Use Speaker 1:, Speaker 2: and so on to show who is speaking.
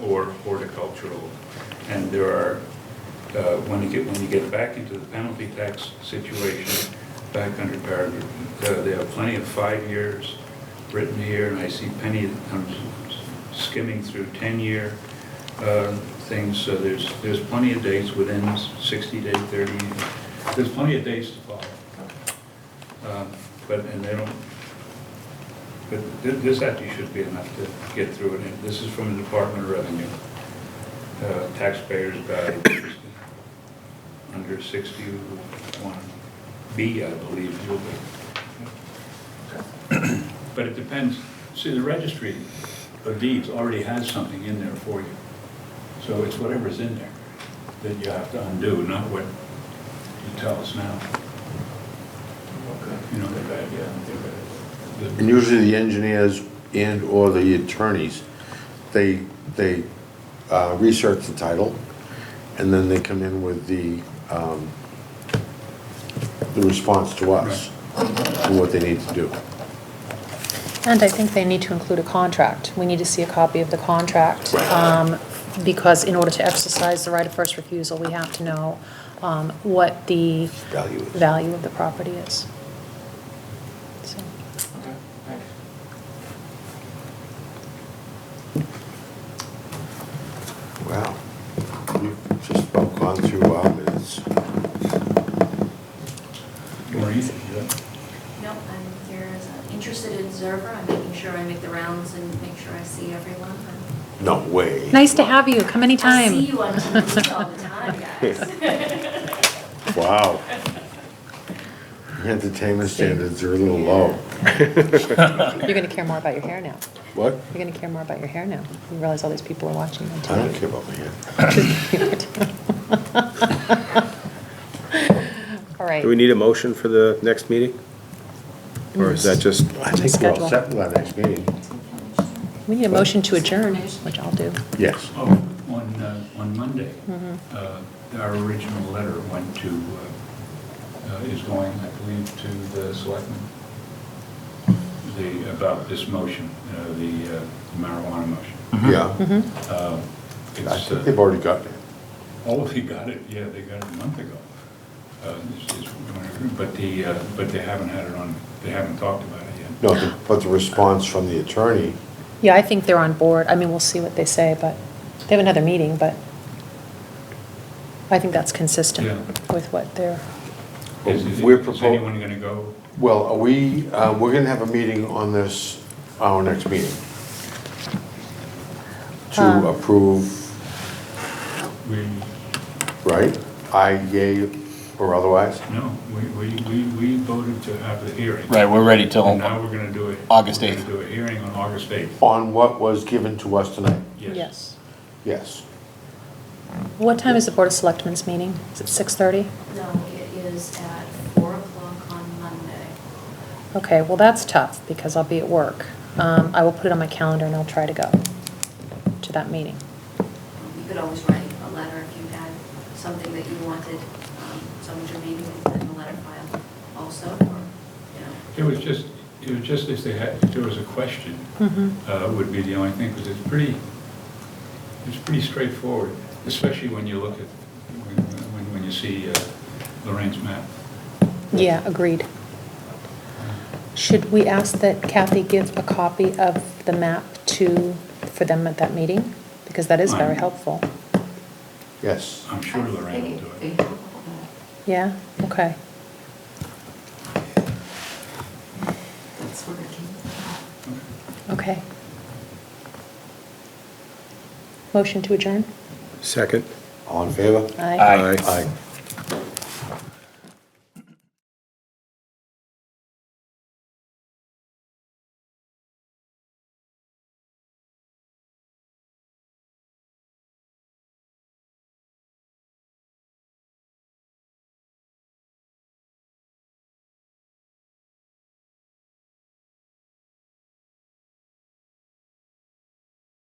Speaker 1: or horticultural. And there are, uh, when you get, when you get back into the penalty tax situation, back under paragraph, uh, they have plenty of five years written here, and I see Penny um, skimming through 10-year uh, things, so there's, there's plenty of dates within 60-day, 30, there's plenty of dates to follow. Um, But, and they don't, but thi- this actually should be enough to get through it, and this is from the Department of Revenue, uh, Taxpayers Guide, which is under 61B, I believe, you'll be. But it depends, see, the registry of deeds already has something in there for you, so it's whatever's in there that you have to undo, not what you tell us now, you know, the bad, yeah. the-
Speaker 2: And usually the engineers and/or the attorneys, they, they uh, research the title, and then they come in with the, um, the response to us, and what they need to do.
Speaker 3: And I think they need to include a contract. We need to see a copy of the contract. um, Because in order to exercise the right of first refusal, we have to know um, what the
Speaker 2: Value is.
Speaker 3: value of the property is. So,
Speaker 4: Okay, thanks.
Speaker 2: Wow. We've just about gone through our minutes.
Speaker 1: Or anything, yeah.
Speaker 5: No, I'm here as an interested observer, I'm making sure I make the rounds and make sure I see everyone. I'm-
Speaker 2: No way.
Speaker 3: Nice to have you. Come
Speaker 5: I
Speaker 3: anytime.
Speaker 5: see you on TV all the time, guys.
Speaker 2: Wow. Your Entertainment standards are a little low.
Speaker 3: You're going to care more about your hair now.
Speaker 2: What?
Speaker 3: You're going to care more about your hair now. You realize all these people are watching on
Speaker 2: I don't
Speaker 3: TV.
Speaker 2: care about my hair.
Speaker 3: All right.
Speaker 6: Do we need a motion for the next meeting? Or is that just,
Speaker 2: I think we're all
Speaker 3: Schedule.
Speaker 2: set for that next meeting.
Speaker 3: We need a motion to adjourn, which I'll do.
Speaker 2: Yes.
Speaker 1: Oh, on, uh, on Monday, uh, our original letter went to, uh, uh, is going, I believe, to the selectmen, the, about this motion, uh, the uh, marijuana motion.
Speaker 2: Yeah.
Speaker 1: Uh,
Speaker 2: I
Speaker 1: It's,
Speaker 2: think they've
Speaker 1: uh,
Speaker 2: already gotten it.
Speaker 1: oh, they got it, yeah, they got it a month ago. Uh, this is- But the, uh, but they haven't had it on, they haven't talked about it yet.
Speaker 2: No, the- but the response from the attorney,
Speaker 3: Yeah, I think they're on board. I mean, we'll see what they say, but they have another meeting, but I think that's consistent
Speaker 1: Yeah.
Speaker 3: with what they're,
Speaker 1: Is- is-
Speaker 2: We're
Speaker 1: Is
Speaker 2: propo-
Speaker 1: anyone going to go?
Speaker 2: well, are we, uh, we're gonna have a meeting on this, our next meeting.
Speaker 3: Um.
Speaker 2: To approve,
Speaker 1: We,
Speaker 2: right? I, yea, or otherwise?
Speaker 1: No, we, we, we we voted to have the hearing.
Speaker 7: Right, we're ready
Speaker 1: And
Speaker 7: till,
Speaker 1: now we're gonna do it.
Speaker 7: August
Speaker 1: we're gonna
Speaker 7: 8th.
Speaker 1: Do a hearing on August 8th.
Speaker 2: On what was given to us tonight?
Speaker 1: Yes.
Speaker 3: yes.
Speaker 2: Yes.
Speaker 3: What time is the Board of Selectmen's meeting? Is it 6:30?
Speaker 5: No, it is at four o'clock on Monday.
Speaker 3: Okay, well, that's tough, because I'll be at work. Um, I will put it on my calendar and I'll try to go to that meeting.
Speaker 5: Um, You could always write a letter if you had something that you wanted, um, someone to read and put in the letter file also, or, you know.
Speaker 1: It was just, it was just if they had, if there was a question,
Speaker 3: Mhm.
Speaker 1: uh, would be the only thing, because it's pretty, it's pretty straightforward, especially when you look at, when, when- when you see uh, Lorraine's map.
Speaker 3: Yeah, agreed. Should we ask that Kathy give a copy of the map to, for them at that meeting? Because that is very
Speaker 1: Fine.
Speaker 3: helpful.
Speaker 2: Yes.
Speaker 1: I'm sure Lorraine will do it.
Speaker 3: Yeah, okay.
Speaker 5: That's working.
Speaker 3: Okay. Motion to adjourn?
Speaker 6: second?
Speaker 2: All in favor?
Speaker 3: Aye.
Speaker 7: Aye.
Speaker 2: Aye.